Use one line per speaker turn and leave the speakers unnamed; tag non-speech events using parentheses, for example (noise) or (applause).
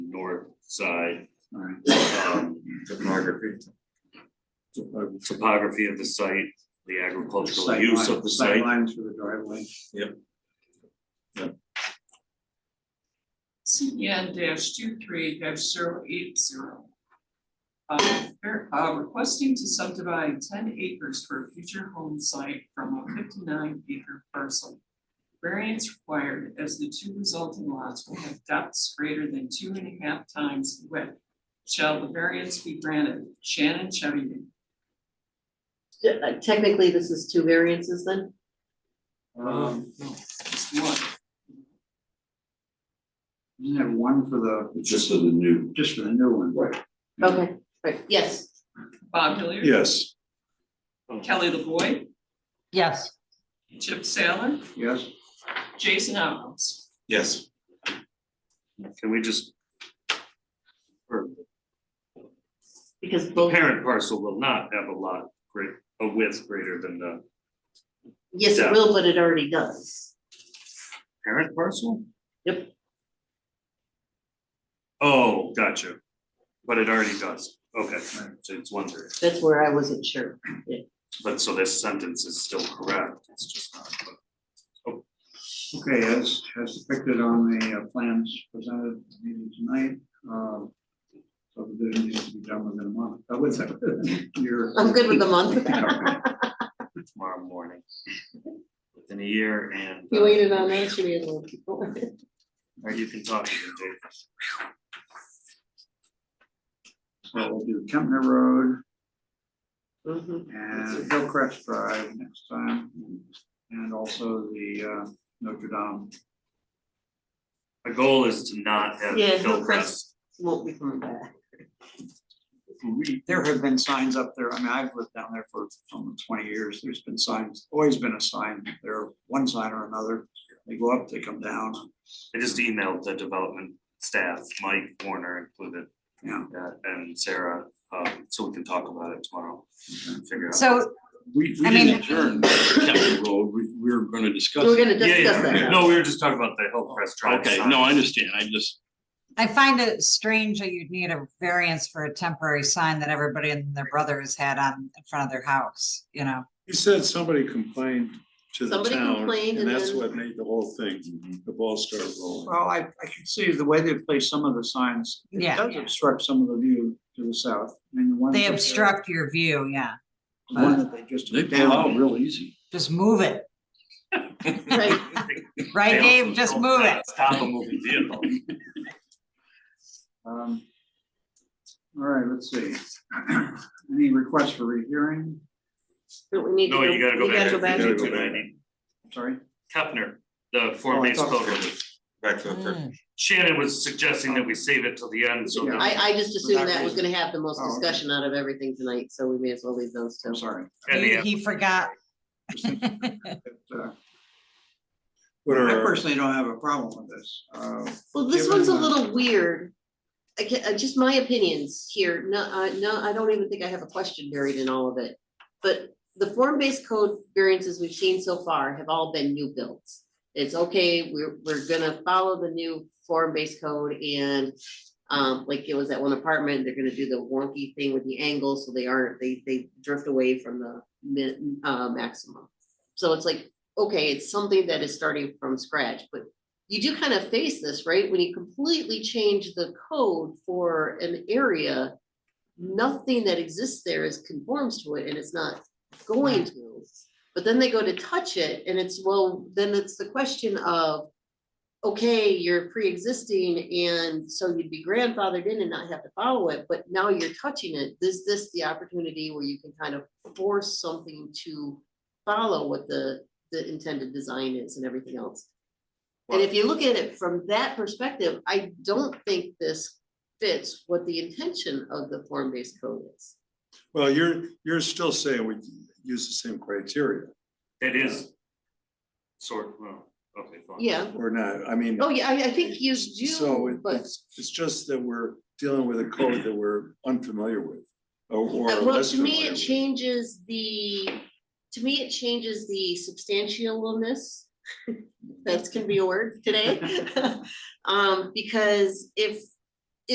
side,
Alright,
um,
topography.
topography of the site, the agricultural
sight
use
line-
of the
sight
site.
lines for the driveway.
CN dash two three dash zero eight zero. Uh, ver- uh, requesting to subdivide ten acres for a future home site from a fifty-nine acre parcel. Variance required as the two resulting lots will have depths greater than two and a half times the width. Shall the variance be granted? Shannon Chevy,
Uh, Technically, this is two variances then?
Um,
just one.
you have one for the,
It's just for the new.
just for the new one. Right.
Okay, right, yes.
Bob Hilliard.
Yes.
Kelly LaVoy,
yes.
Chip Saylor,
Yes?
Jason Outhouse.
Yes.
Can we just? Or
Because
the
both,
parent parcel will not have a lot great, a width greater than the
yes, it will, but it already does.
parent parcel?
Yep.
Oh, gotcha. But it already does. Okay, so it's one variance.
That's where I wasn't sure.
But so this sentence is still correct. It's just not.
Okay, as, as depicted on the uh, plans presented at the meeting tonight, uh, subdivision needs to be done within a month, I would say, (laughs) you're.
I'm good with
(laughs)
the month.
(laughs)
tomorrow morning. (laughs) Within a year and. uh,
on that, should be a little people.
Or you can talk to them, Dave.
So we'll do Kempner Road
Mhm.
and Hillcrest Drive next time, and also the, uh, Notre Dame.
My goal is to not have
Yeah,
Hillcrest.
Won't be coming back.
There have been signs up there, I mean, I've lived down there for almost twenty years, there's been signs, always been a sign, there, one sign or another, they go up, they come down,
I just emailed the development staff, Mike Warner included,
yeah.
uh, and Sarah, um, so we can talk about it tomorrow. and Figure out.
So,
We, we
I mean-
didn't adjourn. Captain Road. We, we were gonna discuss.
We're gonna
Yeah,
discuss
yeah,
that.
no, we were just talking about the Hillcrest Drive.
Okay,
sign.
no, I understand. I just,
I find it strange that you'd need a variance for a temporary sign that everybody and their brother has had on, in front of their house, you know?
He said somebody complained to the
Somebody
town,
complained and
and that's
then-
what made the whole thing, the ball started rolling.
Well, I, I can see the way they've placed some of the signs, it
Yeah.
does obstruct some of the view to the south, I mean, the ones.
They
up there,
obstruct your view, yeah.
The one that they just
they
took
pull out
down,
real easy.
Just move it,
Right,
They
right,
also
Dave? Just
don't,
move
uh,
it.
Stop a moving vehicle.
um. All right, let's see, (clears throat) any requests for rehearing,
Don't we need to
No,
go?
you gotta go
we
back to
back.
fifty-two
Gotta go back.
ninety.
sorry?
Kepner, the Form
Oh, I
Based
thought-
Code Review.
Back
Mm.
Shannon was suggesting that we save it till the end, so
Yeah.
that
I, I just assumed that was
Exactly.
gonna have the most
Oh, okay.
discussion out of everything tonight, so we may as well leave those
I'm
two.
sorry.
and
He,
the
he forgot.
Uh,
What
I
are, our-
personally don't have a problem with this, uh,
Well, this
Given
one's a
the-
little weird. I ca- uh, just my opinions here, no, I, no, I don't even think I have a question buried in all of it. But the form-based code variances we've seen so far have all been new builds. It's okay, we're, we're gonna follow the new form-based code and um, like it was that one apartment, they're gonna do the wonky thing with the angles, so they aren't, they, they drift away from the min, uh, maximum. So it's like, okay, it's something that is starting from scratch, but you do kind of face this, right? When you completely change the code for an area, nothing that exists there is conforms to it and it's not going to. But then they go to touch it and it's, well, then it's the question of, okay, you're pre-existing and so you'd be grandfathered in and not have to follow it, but now you're touching it. Is this the opportunity where you can kind of force something to follow what the, the intended design is and everything else? And if you look at it from that perspective, I don't think this fits what the intention of the form-based code is.
well, you're, you're still saying we use the same criteria,
it is sort, well, okay, fine.
Yeah,
or not, I mean.
oh yeah, I, I think you
So it-
do, but
it's, it's just that we're dealing with a code that we're unfamiliar with, or, or
Uh, Well,
less
to me,
familiar
it
with.
changes the, to me, it changes the substantialness. (laughs)
(laughs)
That's gonna be a word today. Um, because if